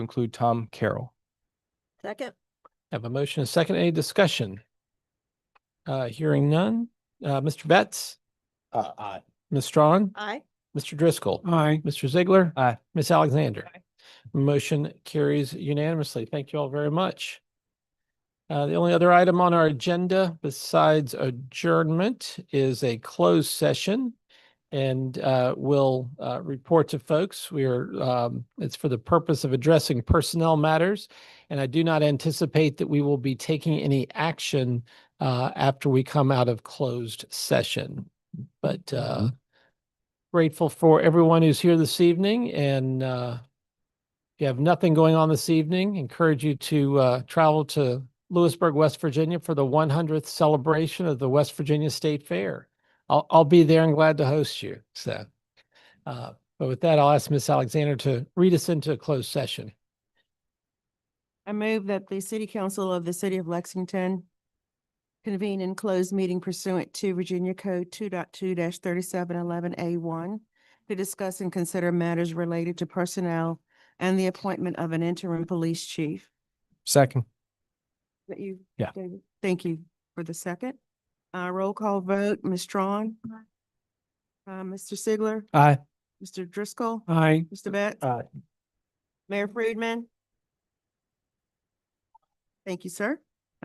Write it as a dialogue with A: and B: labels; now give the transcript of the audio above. A: include Tom Carroll.
B: Second,
A: I Have a motion, a second, any discussion? Uh, hearing none. Uh, Mr. Betts,
C: Uh, aye.
A: Ms. Strong,
B: aye.
A: Mr. Driscoll,
C: Aye.
A: Mr. Ziegler.
C: Aye.
A: Ms. Alexander.
B: Aye.
A: Motion carries unanimously. Thank you all very much. Uh, the only other item on our agenda besides adjournment is a closed session. And, uh, we'll, uh, report to folks. We are, um, it's for the purpose of addressing personnel matters. And I do not anticipate that we will be taking any action, uh, after we come out of closed session. But, uh, grateful for everyone who's here this evening and uh, if you have nothing going on this evening, encourage you to uh, travel to Lewisburg, West Virginia for the 100th celebration of the West Virginia State Fair. I'll, I'll be there and glad to host you. So, uh, but with that, I'll ask Miss Alexander to read us into a closed session.
B: I move that the City Council of the City of Lexington convene in closed meeting pursuant to Virginia Code two thirty-seven eleven A one to discuss and consider matters related to personnel and the appointment of an interim police chief.
C: Second.
B: That you?
C: Yeah.
B: David? Thank you for the second. Uh, roll call vote, Ms. Strong? Uh, Mr. Sigler?
C: Aye.
B: Mr. Driscoll?
C: Aye.
B: Mr. Betts?
C: Aye.
B: Mayor Friedman? Thank you, sir.